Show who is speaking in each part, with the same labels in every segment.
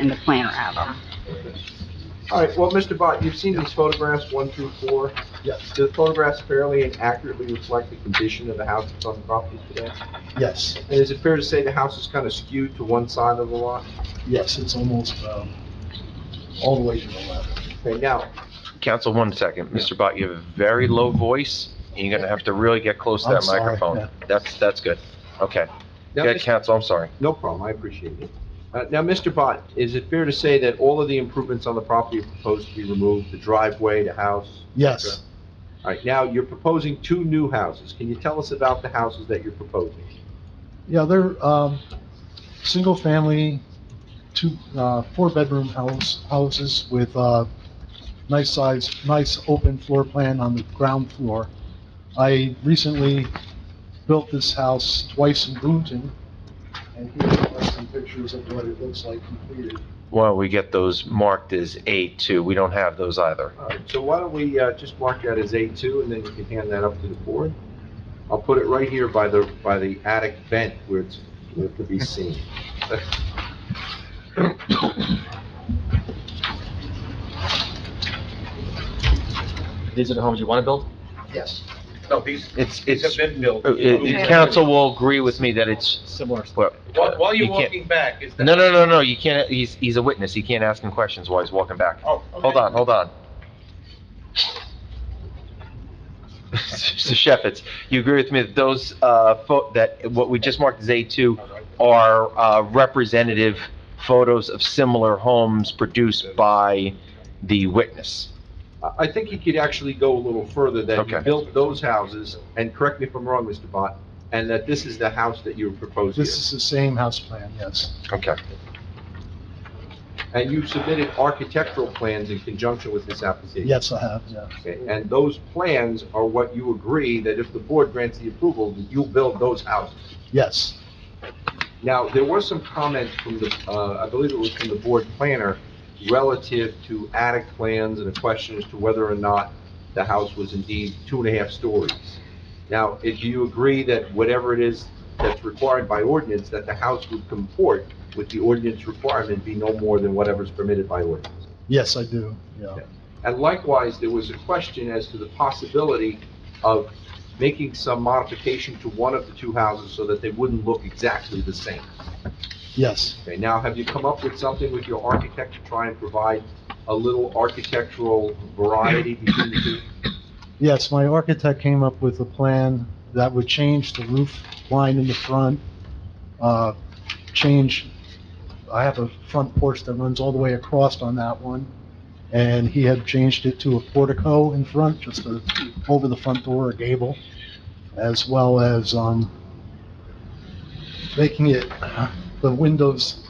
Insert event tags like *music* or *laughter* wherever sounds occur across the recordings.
Speaker 1: in the planner album.
Speaker 2: All right, well, Mr. Bott, you've seen these photographs, one through four.
Speaker 3: Yes,
Speaker 2: Do the photographs fairly and accurately reflect the condition of the house that's on the property today?
Speaker 3: yes,
Speaker 2: And is it fair to say the house is kind of skewed to one side of the lot?
Speaker 3: yes, it's almost, um, all the way to the left.
Speaker 2: Okay, now,
Speaker 4: Council, one second. Mr. Bott, you have a very low voice, and you're gonna have to really get close to
Speaker 3: I'm
Speaker 4: that
Speaker 3: sorry, yeah.
Speaker 4: microphone. That's, that's good. Okay.
Speaker 2: now,
Speaker 4: Yeah,
Speaker 2: Mr.
Speaker 4: Council, I'm sorry.
Speaker 2: No problem, I appreciate it. Uh, Now, Mr. Bott, is it fair to say that all of the improvements on the property are proposed to be removed, the driveway, the house? et
Speaker 3: Yes,
Speaker 2: cetera? All right, now, you're proposing two new houses. Can you tell us about the houses that you're proposing?
Speaker 3: yeah, they're, um, single-family, two, uh, four-bedroom house, houses with, uh, nice size, nice open floor plan on the ground floor. I recently built this house twice in Boonton, and here are some pictures of what it looks like completed.
Speaker 4: Well, we get those marked as A2. We don't have those either.
Speaker 2: All right, so why don't we uh, just mark that as A2, and then you can hand that up to the board? I'll put it right here by the, by the attic vent where it's, where it could be seen.
Speaker 5: These are the homes you want to build?
Speaker 3: Yes.
Speaker 6: No, these,
Speaker 4: It's,
Speaker 6: these have
Speaker 4: it's,
Speaker 6: been built.
Speaker 4: uh, uh, council will agree with me that it's,
Speaker 5: Similar.
Speaker 4: well.
Speaker 6: While, while
Speaker 4: you
Speaker 6: you're
Speaker 4: can't-
Speaker 6: walking back, is that?
Speaker 4: No, no, no, no, you can't, he's, he's a witness. You can't ask him questions while he's walking back.
Speaker 6: Oh, okay.
Speaker 4: Hold on, hold on. *laughs* So Chef, it's, you agree with me that those, uh, pho- that what we just marked as A2 are uh, representative photos of similar homes produced by the witness?
Speaker 2: I- I think you could actually go a little further, that you
Speaker 4: Okay.
Speaker 2: built those houses, and correct me if I'm wrong, Mr. Bott, and that this is the house that you're proposing.
Speaker 3: This is the same house plan, yes.
Speaker 4: Okay.
Speaker 2: And you submitted architectural plans in conjunction with this application?
Speaker 3: Yes, I have, yeah.
Speaker 2: Okay, And those plans are what you agree that if the board grants the approval, that you'll build those houses?
Speaker 3: Yes,
Speaker 2: Now, there were some comments from the, uh, I believe it was from the board planner relative to attic plans and a question as to whether or not the house was indeed two and a half stories. Now, if you agree that whatever it is that's required by ordinance, that the house would comport with the ordinance requirement be no more than whatever's permitted by ordinance?
Speaker 3: yes, I do, yeah.
Speaker 2: And likewise, there was a question as to the possibility of making some modification to one of the two houses so that they wouldn't look exactly the same.
Speaker 3: Yes,
Speaker 2: Okay, now have you come up with something with your architect to try and provide a little architectural variety between the two?
Speaker 3: yes, my architect came up with a plan that would change the roof line in the front, uh, change, I have a front porch that runs all the way across on that one, and he had changed it to a portico in front, just a, over the front door, a gable, as well as, um, making it, the windows,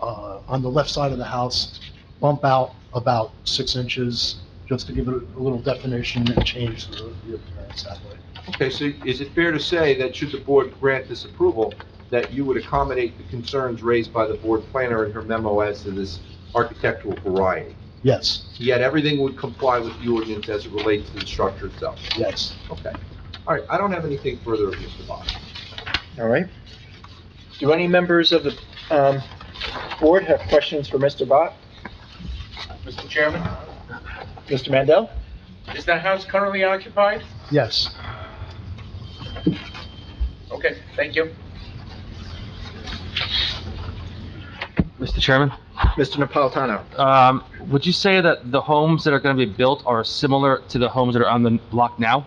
Speaker 3: uh, on the left side of the house bump out about six inches, just to give it a little definition and change the the appearance that way.
Speaker 2: Okay, so is it fair to say that should the board grant this approval, that you would accommodate the concerns raised by the board planner in her memo as to this architectural variety?
Speaker 3: Yes,
Speaker 2: Yet everything would comply with the ordinance as it relates to the structure itself?
Speaker 3: yes.
Speaker 2: Okay. All right, I don't have anything further of Mr. Bott.
Speaker 5: All right. Do any members of the um, board have questions for Mr. Bott?
Speaker 6: Mr. Chairman,
Speaker 5: Mr. Mandel?
Speaker 6: is that house currently occupied?
Speaker 3: Yes.
Speaker 6: Okay, thank you.
Speaker 7: Mr. Chairman,
Speaker 5: Mr. Napolitano?
Speaker 7: um, would you say that the homes that are going to be built are similar to the homes that are on the block now?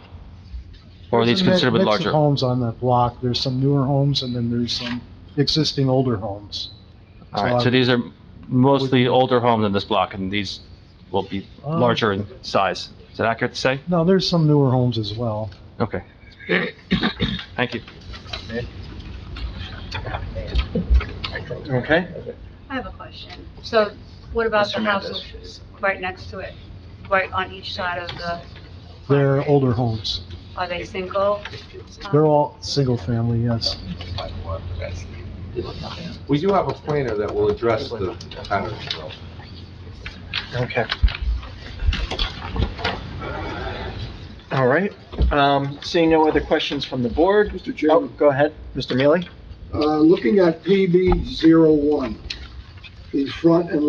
Speaker 7: Or are these
Speaker 3: There's mi-
Speaker 7: considered a bit
Speaker 3: mix of
Speaker 7: larger?
Speaker 3: homes on that block. There's some newer homes and then there's some existing older homes.
Speaker 7: All right, so these are mostly older homes in this block, and these will be
Speaker 3: Um,
Speaker 7: larger in size. Is that accurate to say?
Speaker 3: No, there's some newer homes as well. *coughs*
Speaker 7: Okay. Thank you.
Speaker 5: Okay.
Speaker 1: I have a question. So what about
Speaker 5: Mr.
Speaker 1: the
Speaker 5: Mendez.
Speaker 1: houses right next to it, right on each side of the?
Speaker 3: They're older homes.
Speaker 1: Are they single?
Speaker 3: They're all single family, yes.
Speaker 2: We do have a planner that will address the pattern.
Speaker 5: Okay. All right. Um, Seeing no other questions from the board? Oh, Mr. Chairman? Go ahead, Mr. Mealy.
Speaker 8: Uh, looking at PB zero one, the front and